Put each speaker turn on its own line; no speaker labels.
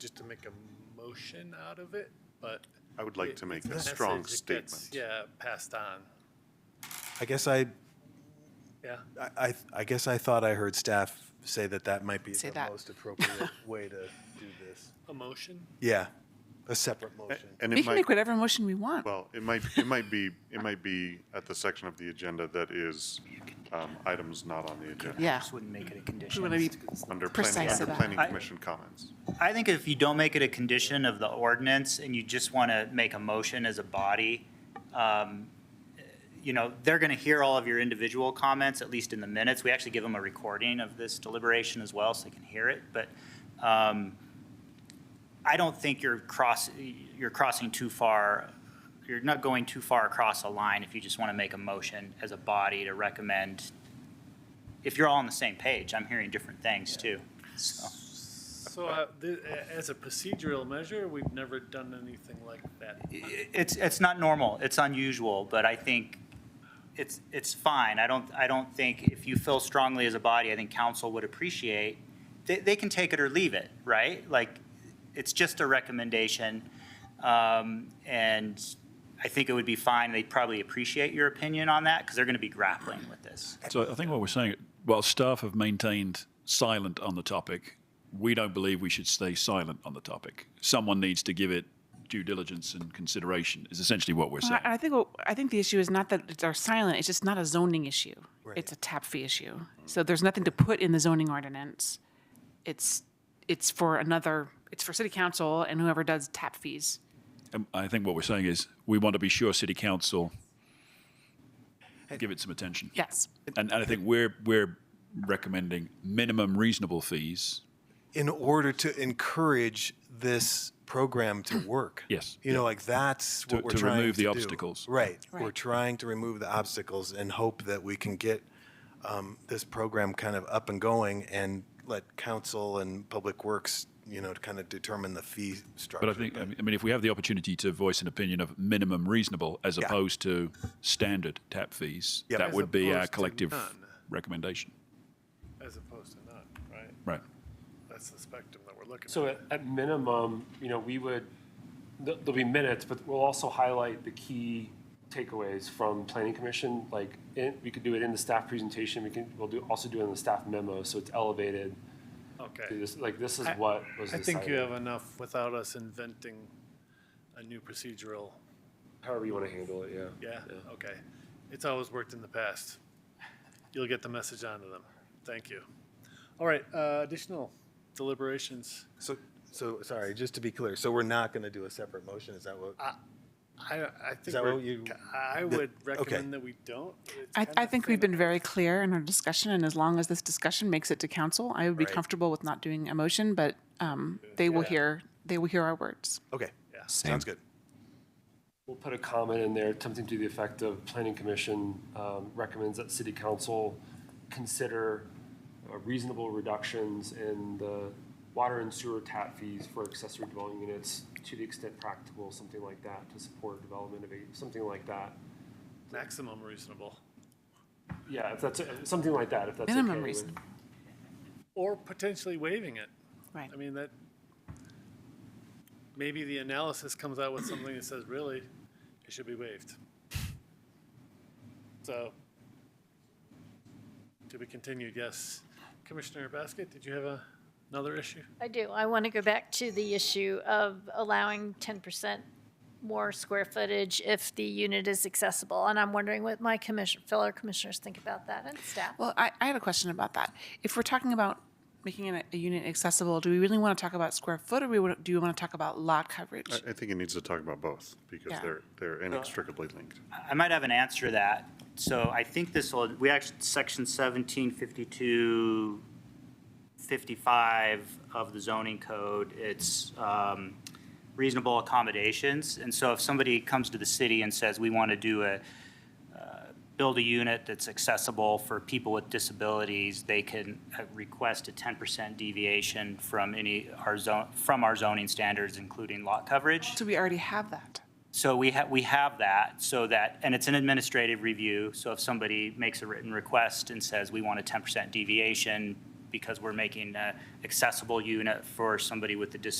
just to make a motion out of it, but.
I would like
it-
to make
it's
a strong
message that gets,
statement.
Yeah, passed on,
I guess I,
yeah.
I- I, I guess I thought I heard staff say that that might be
Say
the
that.
most appropriate way to do this.
A motion?
Yeah, a separate
Eh,
motion.
And
We
it
can
might,
make whatever motion we want.
well, it might, it might be, it might be at the section of the agenda that is um, items not on the agenda.
Yeah.
Just wouldn't make it a
We wanna be-
condition.
Under planning,
Precise
under
about it.
planning
I-
commission comments.
I think if you don't make it a condition of the ordinance and you just want to make a motion as a body, um, you know, they're going to hear all of your individual comments, at least in the minutes. We actually give them a recording of this deliberation as well, so they can hear it. But um, I don't think you're cross, you're crossing too far, you're not going too far across a line if you just want to make a motion as a body to recommend. If you're all on the same page, I'm hearing different things too, so.
So uh, th- a- as a procedural measure, we've never done anything like that.
It's, it's not normal, it's unusual, but I think it's, it's fine. I don't, I don't think, if you feel strongly as a body, I think council would appreciate, they, they can take it or leave it, right? Like, it's just a recommendation, um, and I think it would be fine. They'd probably appreciate your opinion on that, because they're going to be grappling with this.
So I think what we're saying, while staff have maintained silent on the topic, we don't believe we should stay silent on the topic. Someone needs to give it due diligence and consideration, is essentially what we're
Well,
saying.
I I think, what- I think the issue is not that it's our silent, it's just not a zoning issue. It's a tap fee issue. So there's nothing to put in the zoning ordinance. It's, it's for another, it's for city council and whoever does tap fees.
And I think what we're saying is, we want to be sure city council give it some attention.
Yes.
And, and I think we're, we're recommending minimum reasonable fees.
in order to encourage this program to work.
Yes.
You know, like that's what
To-
we're
to
trying
remove the
do.
obstacles.
Right. We're
Right.
trying to remove the obstacles and hope that we can get um, this program kind of up and going and let council and public works, you know, to kind of determine the fee structure.
But I think, I mean- I mean, if we have the opportunity to voice an opinion of minimum reasonable as opposed to standard tap fees,
Yep.
that
As
would be our
opposed to
collective
none.
recommendation.
As opposed to none, right?
Right.
That's the spectrum that we're looking at.
So at, at minimum, you know, we would, th- there'll be minutes, but we'll also highlight the key takeaways from planning commission, like, in- we could do it in the staff presentation, we can, we'll do, also do it in the staff memo, so it's elevated.
Okay.
This- Like, this is
I-
what was
I think you
decided,
have enough without us inventing a new procedural,
however you want to handle it, yeah.
yeah, okay. It's always worked in the past. You'll get the message onto them. Thank you. All right, uh, additional deliberations.
so. So sorry, just to be clear. So we're not going to do a separate motion. Is that what?
I, I think
that
we're-
what you-
I would recommend that we don't. It's
I,
kind
I
of
think we've been very clear in our discussion, and as long as this discussion makes it to council, I would be
Right.
comfortable with not doing a motion, but um, they will hear, they will hear our words.
okay.
Yeah.
Sounds good.
We'll put a comment in there, something to the effect of planning commission um, recommends that city council consider uh, reasonable reductions in the water and sewer tap fees for accessory dwelling units to the extent practical, something like that, to support development of a, something like that.
Maximum reasonable,
Yeah, if that's, if- something like that, if that's okay.
Minimum
with-
reasonable.
or potentially waiving it.
Right.
I mean, that, maybe the analysis comes out with something that says, really, it should be waived. So, to be continued, yes. Commissioner Basket, did you have a- another issue?
I do. I want to go back to the issue of allowing ten percent more square footage if the unit is accessible. And I'm wondering what my commission, fellow commissioners think about that and staff.
Well, I, I had a question about that. If we're talking about making it a unit accessible, do we really want to talk about square foot, or we wanna- do we want to talk about lot coverage?
I, I think it needs to talk about both because
Yeah.
they're, they're inextricably linked.
I might have an answer to that. So I think this will, we actually, section seventeen fifty-two, fifty-five of the zoning code, it's um, reasonable accommodations. And so if somebody comes to the city and says, we want to do a, uh, build a unit that's accessible for people with disabilities, they can uh, request a ten percent deviation from any, our zone, from our zoning standards, including lot coverage.
So we already have that.
So we have, we have that, so that, and it's an administrative review, so if somebody makes a written request and says, we want a ten percent deviation because we're making a accessible unit for somebody with a disability